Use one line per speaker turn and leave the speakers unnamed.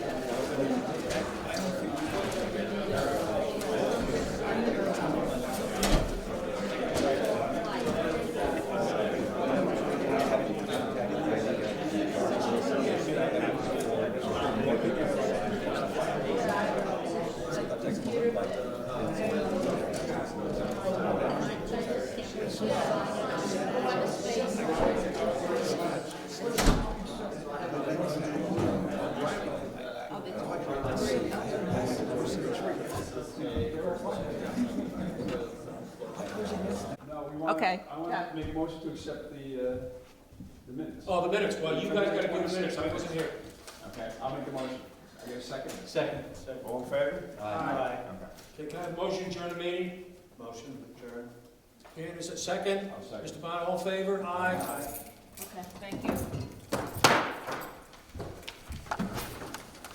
No, we want,
Okay.
I want to make a motion to accept the, uh, the minutes.
Oh, the minutes, well, you guys gotta do the minutes, I wasn't here.
Okay, I'll make the motion. I get a second.
Second.
All in favor?
Aye.
Okay,
Okay, can I have a motion, to adjourn the meeting? Motion, adjourn. Dan, is it second?
I'll second.
Mr. Bond, all in favor? Aye.
Okay, thank you.